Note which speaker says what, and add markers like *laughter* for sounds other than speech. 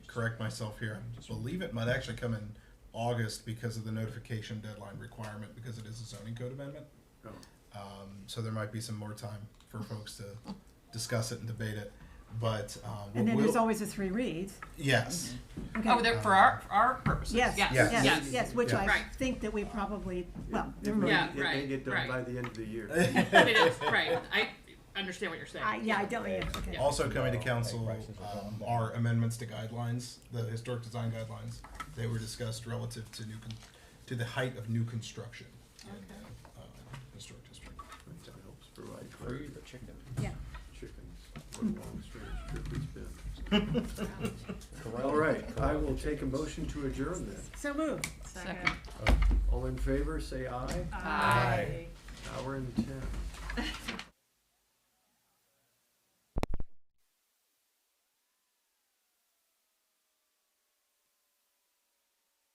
Speaker 1: correct myself here. I believe it might actually come in August because of the notification deadline requirement because it is a zoning code amendment.
Speaker 2: Oh.
Speaker 1: Um, so there might be some more time for folks to discuss it and debate it. But um,
Speaker 3: And then
Speaker 1: what
Speaker 3: there's Mhm.
Speaker 1: we'll-
Speaker 3: always the three reads.
Speaker 1: yes,
Speaker 3: Okay.
Speaker 4: Oh, they're for our, for our purposes,
Speaker 3: Yes,
Speaker 4: yes, yes.
Speaker 1: Yes.
Speaker 3: yes, yes, which
Speaker 1: Yeah.
Speaker 3: I
Speaker 4: Right.
Speaker 3: think that we probably, well,
Speaker 2: If
Speaker 3: never
Speaker 2: we-
Speaker 3: mind.
Speaker 4: Yeah,
Speaker 2: if they
Speaker 4: right,
Speaker 2: get done
Speaker 4: right.
Speaker 2: By the end of the
Speaker 3: *laughs*
Speaker 2: year.
Speaker 4: I mean, it's, right, I understand what you're saying.
Speaker 3: I- Yeah, I don't, yeah, okay.
Speaker 1: also coming to council um, are amendments to guidelines, the historic design guidelines. They were discussed relative to new con- to the height of new construction in the uh, historic district.
Speaker 2: Which helps provide
Speaker 5: Free
Speaker 2: clarity.
Speaker 5: the chicken.
Speaker 3: Yeah.
Speaker 2: Chickens,
Speaker 3: Hmm.
Speaker 2: what a long strange trip it's been.
Speaker 5: Corral-
Speaker 2: All right, I
Speaker 5: corral
Speaker 2: will
Speaker 5: the
Speaker 2: take a
Speaker 5: chickens.
Speaker 2: motion to adjourn then.
Speaker 3: So moved.
Speaker 4: Second.
Speaker 2: All in favor, say aye.
Speaker 4: Aye.
Speaker 2: Hour and ten.